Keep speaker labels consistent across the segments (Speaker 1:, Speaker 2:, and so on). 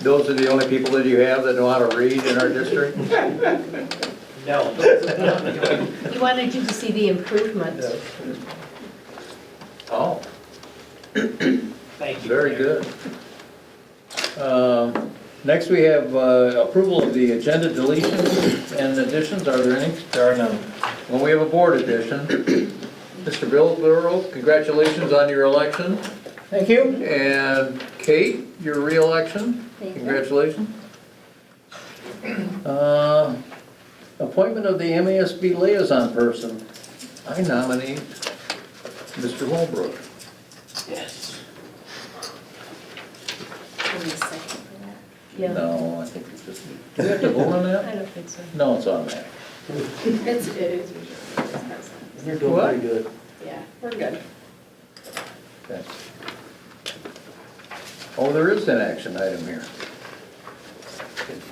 Speaker 1: Those are the only people that you have that know how to read in our district?
Speaker 2: No.
Speaker 3: He wanted you to see the improvements.
Speaker 1: Oh,
Speaker 2: Thank you.
Speaker 1: very good. Um, Next, we have uh, approval of the agenda deletions and additions. Are there any?
Speaker 4: There are none.
Speaker 1: Well, we have a board edition. Mr. Bill Burrow, congratulations on your election.
Speaker 4: Thank you.
Speaker 1: And Kate, your reelection.
Speaker 3: Thank you.
Speaker 1: Congratulations. Uh, Appointment of the MASB liaison person. I nominate Mr. Holbrook.
Speaker 2: Yes.
Speaker 3: Yeah,
Speaker 1: No, I think it's just, do we have to vote on that?
Speaker 3: I don't think so.
Speaker 1: No, it's automatic.
Speaker 5: It's, it is usually, it's not-
Speaker 4: You're
Speaker 1: doing pretty
Speaker 4: good.
Speaker 5: yeah, we're good.
Speaker 1: Okay. Oh, there is an action item here.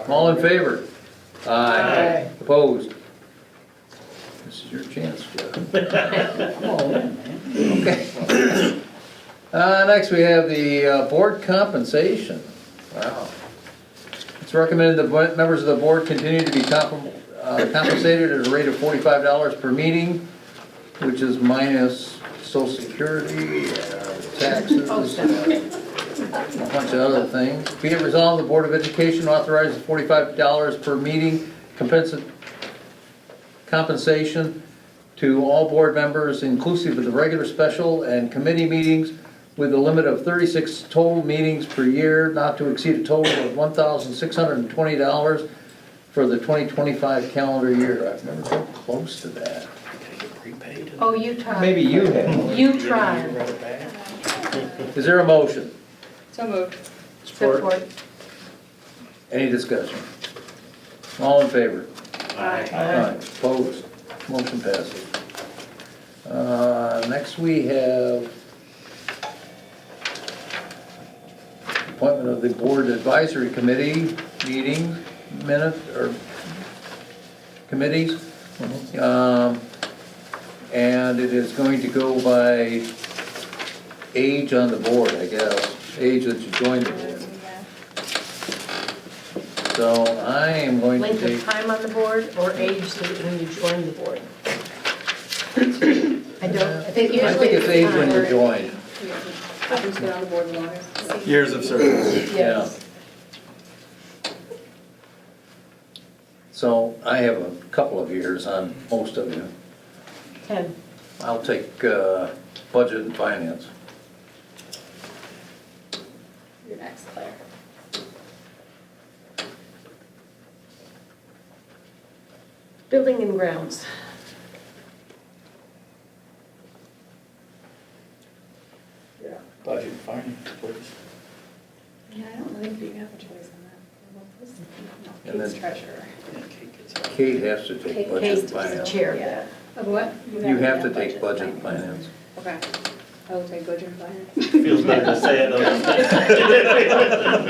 Speaker 1: All in favor? Aye. Opposed? This is your chance, Jeff. Come on in, man. Okay. Uh, next we have the uh, board compensation. Wow. It's recommended that bo- members of the board continue to be comp- uh, compensated at a rate of forty-five dollars per meeting, which is minus social security, uh, taxes, uh, a bunch of other things. Be it resolved, the Board of Education authorizes forty-five dollars per meeting compensa- compensation to all board members, inclusive of the regular special and committee meetings, with a limit of thirty-six total meetings per year, not to exceed a total of one thousand six hundred and twenty dollars for the twenty twenty-five calendar year. I've never been close to that.
Speaker 3: Oh, you tried.
Speaker 1: Maybe you have.
Speaker 3: You tried.
Speaker 1: Is there a motion?
Speaker 5: So moved.
Speaker 3: Support.
Speaker 1: Any discussion? All in favor?
Speaker 5: Aye.
Speaker 1: Aye. Opposed? Motion passes. Uh, Next, we have appointment of the Board Advisory Committee meeting minute, or committees. Um, And it is going to go by age on the board, I guess, age that you joined the board. So I am going to
Speaker 3: Length
Speaker 1: take
Speaker 3: of time on the board or age that when you joined the board? I don't, I think
Speaker 1: I think
Speaker 3: usually
Speaker 1: it's age when you're
Speaker 3: it's time.
Speaker 1: joined.
Speaker 5: Who's been on the board the longest?
Speaker 4: Years of service.
Speaker 3: Yes.
Speaker 1: So I have a couple of years on most of you.
Speaker 3: Ten.
Speaker 1: I'll take uh, budget and finance.
Speaker 5: Your next, Claire.
Speaker 3: Building and grounds.
Speaker 4: Budget finance, please.
Speaker 5: Yeah, I don't think you have a choice on that.
Speaker 1: And then-
Speaker 5: He's treasurer.
Speaker 1: Kate has to take
Speaker 3: Kate
Speaker 1: budget
Speaker 3: Kate
Speaker 1: and
Speaker 3: is the
Speaker 1: finance.
Speaker 3: chair of
Speaker 5: Yeah.
Speaker 3: that.
Speaker 5: Of what?
Speaker 1: You have to take budget and finance.
Speaker 5: Okay. I will take budget and finance.
Speaker 2: Feels better to say it though.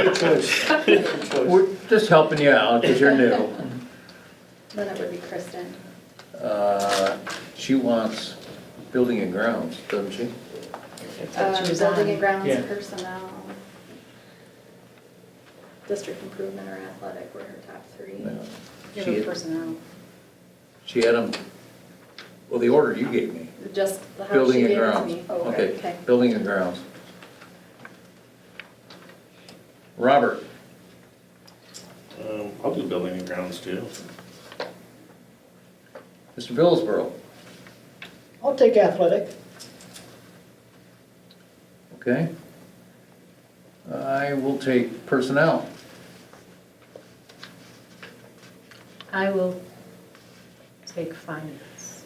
Speaker 4: Good choice. Good choice.
Speaker 1: We're just helping you out because you're new.
Speaker 5: Then it would be Kristen.
Speaker 1: Uh, She wants building and grounds, doesn't she?
Speaker 3: That's what she
Speaker 5: Um,
Speaker 3: was
Speaker 5: Building
Speaker 3: on.
Speaker 5: and grounds
Speaker 4: Yeah.
Speaker 5: personnel. District improvement or athletic were her top three.
Speaker 1: No.
Speaker 5: Give
Speaker 1: She-
Speaker 5: her personnel.
Speaker 1: She had them, well, the order you gave me,
Speaker 5: Just the how she
Speaker 1: building
Speaker 5: gave
Speaker 1: and
Speaker 5: it to
Speaker 1: grounds.
Speaker 5: me. Oh,
Speaker 1: Okay, building and grounds. Robert,
Speaker 6: Um, I'll do building and grounds too.
Speaker 1: Mr. Billsborough.
Speaker 7: I'll take athletic.
Speaker 1: Okay. I will take personnel.
Speaker 3: I will take finance.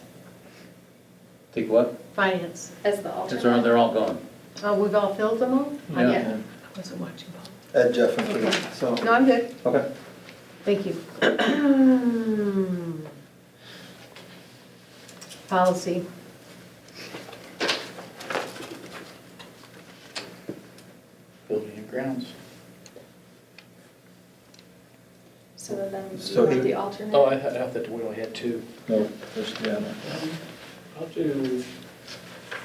Speaker 1: Take what?
Speaker 3: Finance.
Speaker 5: As the
Speaker 1: Since they're,
Speaker 5: alternate.
Speaker 1: they're all gone.
Speaker 3: Oh, we've all filled them all? Oh, I
Speaker 5: Yeah.
Speaker 3: wasn't watching. Bob.
Speaker 4: Ed Jeff and
Speaker 3: Okay.
Speaker 4: Keith, so.
Speaker 3: No, I'm good.
Speaker 4: Okay.
Speaker 3: Thank you. Policy.
Speaker 4: Building and grounds.
Speaker 7: Mm-hmm.
Speaker 5: So then you
Speaker 4: So
Speaker 5: want
Speaker 4: who-
Speaker 5: the alternate.
Speaker 8: Oh, I thought, I thought we only had two.
Speaker 7: Mm-hmm.
Speaker 4: No, there's, yeah, no.
Speaker 8: I'll do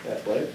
Speaker 8: athletic.